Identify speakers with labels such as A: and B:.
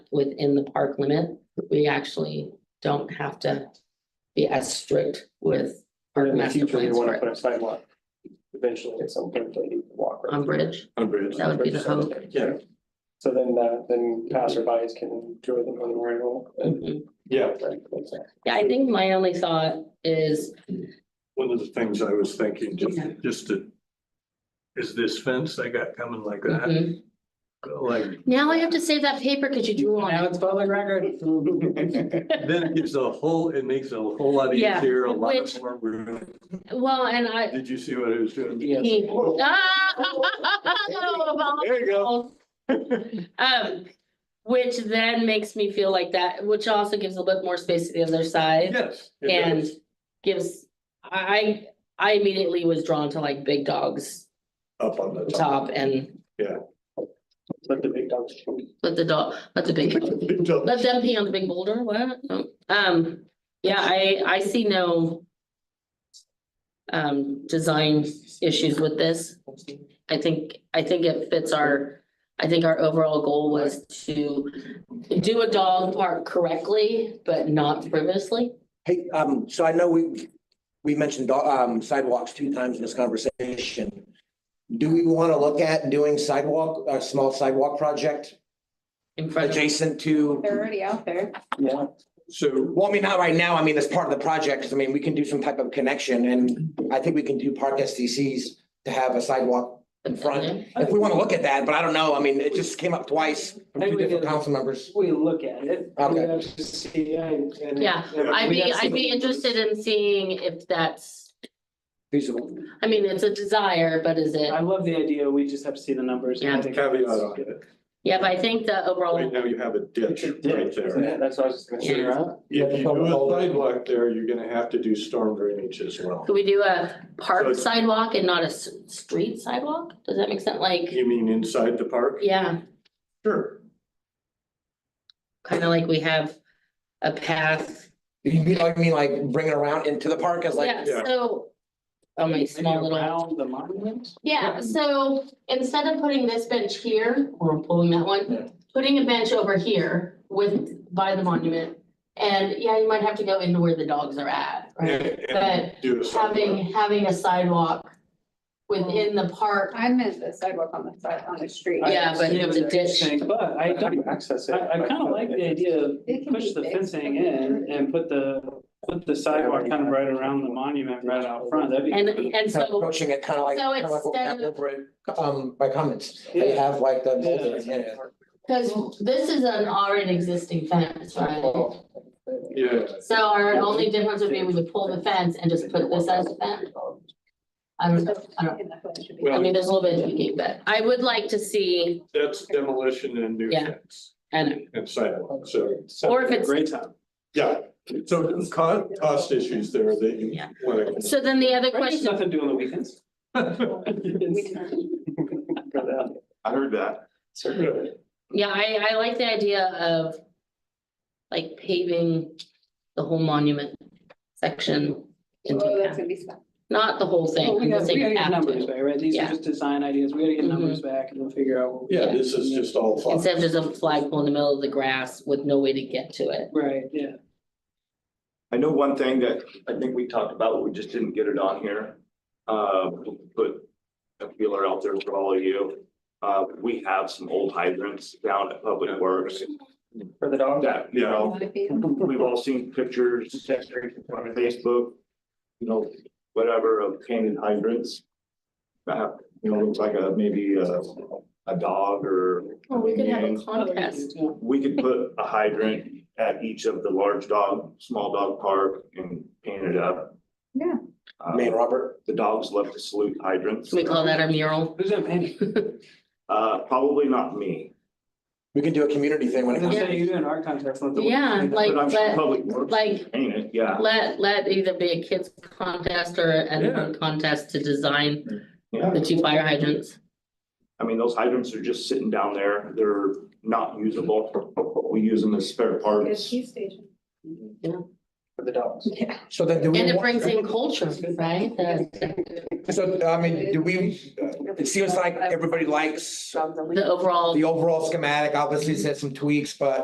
A: within the park limit, we actually don't have to be as strict with our
B: In the
A: master
B: future, you
A: plans
B: wanna
A: for
B: put a sidewalk. Eventually, at some point, they need to walk.
A: on bridge.
C: Unbridged.
A: That would be the hope.
C: Yeah.
B: So then, uh, then passerbys can enjoy the memorial. and-
A: Mhm.
C: Yeah,
A: Mm-hmm. Yeah, I think my only thought is,
C: one of the things I was thinking, just,
A: Yeah.
C: just to. Is this fence they got coming like that,
A: mhm.
C: like,
A: now I have to save that paper because you drew on
D: Now
A: it.
D: it's public record.
C: then it gives a whole, it makes it a whole lot
A: Yeah,
C: easier, a lot
A: which-
C: more room.
A: Well, and I.
C: Did you see what I was doing?
D: Yes.
A: he- Ah!
D: There you go.
A: Um, which then makes me feel like that, which also gives a little bit more space to the other side
C: Yes. it
A: and
C: does.
A: gives, I, I immediately was drawn to like big dogs
C: Up on the top.
A: top and
B: Let the big dogs. shoot.
A: let the dog, let the big, let them pee on the big boulder, what? No. Um, yeah, I, I see no um, design issues with this. I think, I think it fits our, I think our overall goal was to do a dog park correctly, but not frivolously.
E: Hey, um, so I know we, we mentioned um sidewalks two times in this conversation. Do we want to look at doing sidewalk, a small sidewalk project
A: in front of.
E: adjacent to?
F: They're already out there.
B: Yeah.
C: So,
E: Well, I mean, not right now. I mean, as part of the project, 'cause I mean, we can do some type of connection and I think we can do park SDCs to have a sidewalk. in front. If we want to look at that, but I don't know. I mean, it just came up twice from two different council members.
D: We look at it.
E: Okay.
D: We have to see, uh, and-
A: Yeah, I'd
D: we
A: be,
D: have to-
A: I'd be interested in seeing if that's,
E: Feasible.
A: I mean, it's a desire, but is it?
D: I love the idea. We just have to see the numbers.
A: Yeah.
C: caveat on it,
A: Yeah, but I think the
C: right
A: overall,
C: now you have a ditch right there.
B: Yeah, That's what I was just gonna say, right?
C: If you do a sidewalk there, you're gonna have to do storm drainage as well.
A: could we do a
C: So-
A: park sidewalk and not a s- street sidewalk? Does that make sense? Like,
C: You mean inside the park?
A: yeah,
C: Sure.
A: kind of like we have a path.
E: You mean, like, I mean, like bring it around into the park as like,
A: Yeah,
C: yeah.
A: so. Oh, my
D: Maybe
A: small little.
D: Around the monument?
A: Yeah, so instead of putting this bench here, or pulling that
B: Yeah.
A: one, putting a bench over here with, by the monument. And yeah, you might have to go into where the dogs are at,
C: And-
A: right?
C: and Do a sidewalk.
A: Having, having a sidewalk within the park,
F: I meant the sidewalk on the side, on the street.
A: Yeah. but
D: I see
A: it's a
D: what you're
A: ditch.
D: saying, But I
B: How do you
D: don't,
B: access
D: I,
B: it?
D: I kind of like the idea of
F: It can
D: push
F: be
D: the
F: big.
D: fencing in and put the, put the sidewalk kind of right around the monument right out front. That'd be.
A: and, and
E: kind of
A: so,
E: approaching it kind of like.
A: So
E: kinda like what we have
A: instead of-
E: over at, Um, by comments, they
D: Yeah.
E: have like the.
D: Yeah.
A: because this is an already existing fence, right?
C: Yeah.
A: So our only difference would be we would pull the fence and just put this as a fence. I don't know, I don't, I
C: Well,
A: mean, there's a little bit of tweaking, but I would like to see,
C: that's demolition and new
A: Yeah.
C: fence
A: I don't know,
C: and sidewalk, so,
A: Or if it's-
D: Great time.
C: yeah. So there's co- cost issues there that you
A: Yeah.
C: want
A: so then the other
D: Right, there's
A: question.
D: Nothing to do on the weekends.
C: to.
B: I heard that. Certainly.
A: Yeah, I, I like the idea of like paving the whole monument section. into
F: Oh,
A: half.
F: that's gonna be fun.
A: Not the whole thing,
D: Well, we
A: I'm
D: gotta,
A: just
D: we gotta
A: saying
D: get
A: half
D: numbers
A: to,
D: back, right? These are
A: Yeah. Mm-hmm.
D: just design ideas. We gotta get numbers back and we'll figure out. what we-
C: Yeah, this is just all thought.
A: instead of just a flagpole in the middle of the grass with no way to get to it.
D: Right, yeah.
G: I know one thing that I think we talked about, we just didn't get it on here. Uh, we'll put a feeler out there for all of you. Uh, we have some old hydrants down at Public Works
B: For the dog.
G: that, you know, we've all seen pictures on Facebook, you know, whatever of painted hydrants. Uh, you know, looks like a, maybe a, a dog or
A: Or
G: we could have a
E: Mm-hmm.
G: Yeah.
A: contest.
G: we could put a hydrant at each of the large dog, small dog park and paint it up.
F: Yeah.
G: Uh,
E: Man, Robert,
G: The dogs love to salute hydrants.
A: Can we call that a mural?
D: Who's that paying?
G: Uh, probably not me,
E: we can do a community thing when it comes.
D: Let's say you do an art contest. let the-
A: Yeah, like-
G: but I'm sure
A: but-
G: public works
A: Like,
G: paint it, yeah.
A: let, let either be a kids contest or
C: Yeah.
A: a contest to design
G: Yeah,
A: the two fire hydrants.
G: I mean, those hydrants are just sitting down there, they're not usable, we use them as spare
F: It's
G: parts.
F: G station.
B: For the dogs.
F: Yeah.
E: So then do we?
A: And it
E: want-
A: brings in culture, right? The,
E: So, I mean, do we, it seems like everybody likes
A: the overall.
E: the overall schematic, obviously it's had some tweaks, but